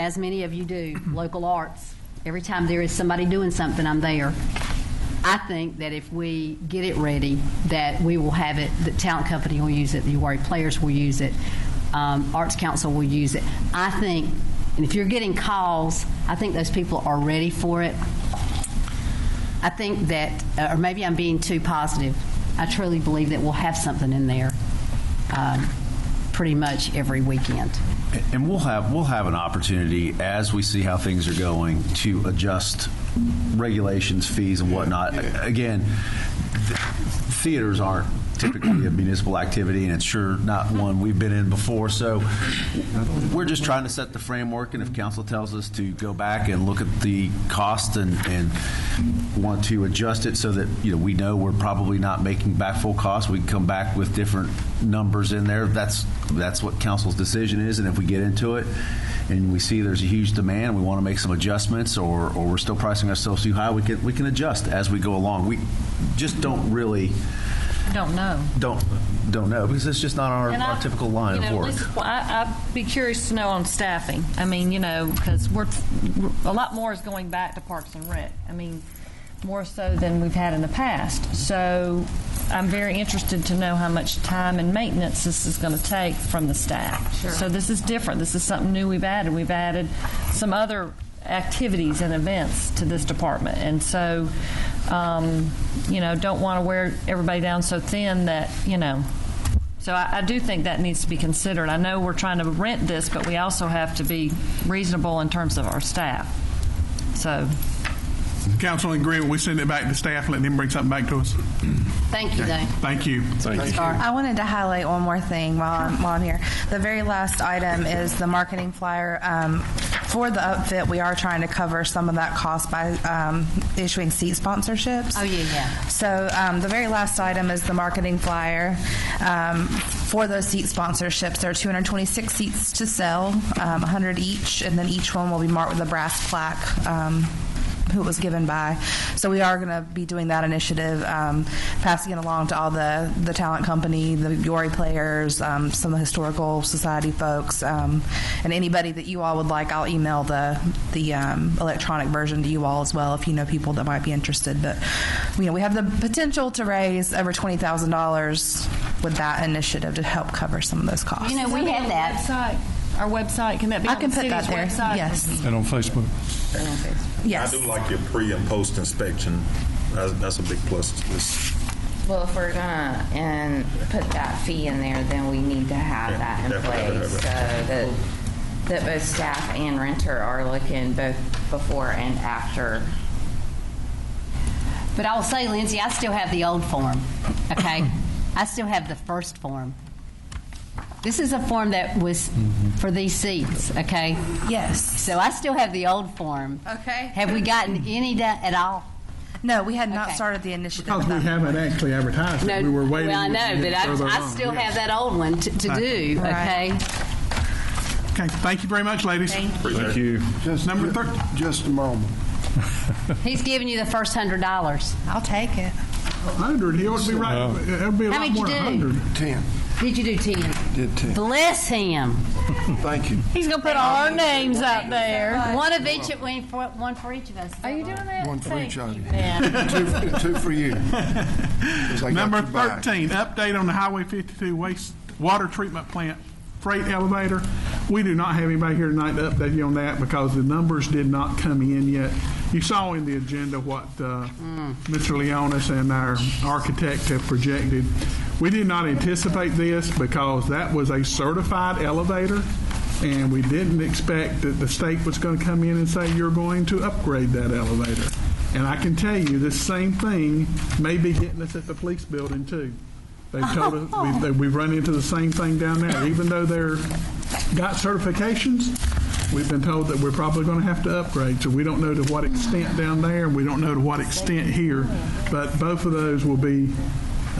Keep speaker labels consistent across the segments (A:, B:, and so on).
A: as many of you do, local arts. Every time there is somebody doing something, I'm there. I think that if we get it ready, that we will have it, the talent company will use it, the URI players will use it, um, Arts Council will use it. I think, and if you're getting calls, I think those people are ready for it. I think that, uh, or maybe I'm being too positive, I truly believe that we'll have something in there um, pretty much every weekend.
B: And we'll have, we'll have an opportunity as we see how things are going to adjust regulations, fees and whatnot. Again, th- theaters aren't typically a municipal activity and it's sure not one we've been in before. So we're just trying to set the framework and if council tells us to go back and look at the cost and, and want to adjust it so that, you know, we know we're probably not making back full cost, we can come back with different numbers in there. That's, that's what council's decision is, and if we get into it and we see there's a huge demand, we want to make some adjustments, or, or we're still pricing ourselves too high, we can, we can adjust as we go along. We just don't really,
C: Don't know.
B: don't, don't know, because it's just not our,
C: And
B: our
C: I-
B: typical line
C: you
B: of
C: know,
B: work.
C: listen, well, I, I'd be curious to know on staffing. I mean, you know, because we're, a lot more is going back to Parks and Rec. I mean, more so than we've had in the past. So I'm very interested to know how much time and maintenance this is going to take from the staff. Sure. So this is different. This is something new we've added. We've added some other activities and events to this department. And so, um, you know, don't want to wear everybody down so thin that, you know, so I, I do think that needs to be considered. I know we're trying to rent this, but we also have to be reasonable in terms of our staff. So,
D: Council in agreement, we send it back to staff, let them bring something back to us.
A: Thank you, Dave.
D: Thank you.
A: Scar.
E: I wanted to highlight one more thing while I'm, while I'm here. The very last item is the marketing flyer. Um, for the upfit, we are trying to cover some of that cost by um, issuing seat sponsorships.
A: Oh, yeah, yeah.
E: So um, the very last item is the marketing flyer um, for those seat sponsorships. There are 226 seats to sell, um, 100 each, and then each one will be marked with a brass plaque. Um, who it was given by. So we are going to be doing that initiative, um, passing it along to all the, the talent company, the Yori players, um, some of the historical society folks, um, and anybody that you all would like. I'll email the the um, electronic version to you all as well if you know people that might be interested. But you know we have the potential to raise over twenty thousand dollars with that initiative to help cover some of those costs.
A: You know, we had that.
C: Website, our website, can that be
E: I
C: on
E: can
C: the
E: put
C: city's
E: that there.
C: website?
E: Yes,
F: And on Facebook.
E: yes.
G: I do like your pre and post inspection. That's, that's a big plus to this.
H: Well, if we're gonna and put that fee in there, then we need to have that in
G: Definitely.
H: place so that that both staff and renter are looking both before and after.
A: But I will say, Lindsay, I still have the old form, okay? I still have the first form. This is a form that was for these seats, okay?
E: Yes.
A: So I still have the old form.
E: Okay.
A: Have we gotten any da- at all?
E: No, we had not
A: Okay.
E: started the initiative.
D: Because
E: with
D: we
E: that.
D: haven't actually advertised it, we were waiting.
A: Well, I know, but
D: further
A: I, I
D: along.
A: still
D: Yeah.
A: have that old one to, to do, okay?
E: Right.
D: Okay, thank you very much, ladies.
F: Thank you.
I: Just
D: Number thir-
I: Just a moment.
A: He's giving you the first hundred dollars.
E: I'll take it.
D: 100, he ought to be right, it'll be a
A: How
D: lot
A: many
D: more
A: you
D: than
A: do?
D: 100.
I: Ten.
A: Did you do ten?
I: Did ten.
A: Bless him.
I: Thank you.
C: He's going to put all our names out there.
A: One of each, we- for- one for each of us.
C: Are you doing that?
I: One for each other.
C: Yeah.
I: Two, for- two for you. 'Cause I got
D: Number
I: your back.
D: 13, update on the Highway 52 waste water treatment plant freight elevator. We do not have anybody here tonight to update you on that because the numbers did not come in yet. You saw in the agenda what uh,
I: Mm.
D: Mr. Leonis and our architect have projected. We did not anticipate this because that was a certified elevator, and we didn't expect that the state was going to come in and say, you're going to upgrade that elevator. And I can tell you, this same thing may be hitting us at the police building too. They've told us, we've, they- we've run into the same thing down there. Even though they're got certifications, we've been told that we're probably going to have to upgrade. So we don't know to what extent down there, and we don't know to what extent here. But both of those will be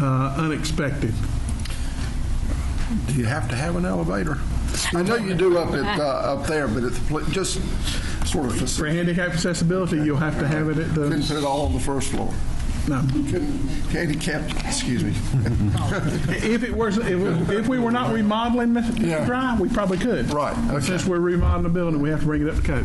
D: uh, unexpected.
I: Do you have to have an elevator? I know you do up at, uh, up there, but it's pl- just sort of, faci-
D: For handicap accessibility, you'll have to have it at
I: couldn't
D: the,
I: put it all on the first floor.
D: No.
I: Handicapped, excuse me.
D: If it was, if if we were not remodeling Mr.
I: Yeah.
D: Drive, we probably could.
I: Right,
D: But
I: okay.
D: Since we're remodeling the building, we have to bring it up to code.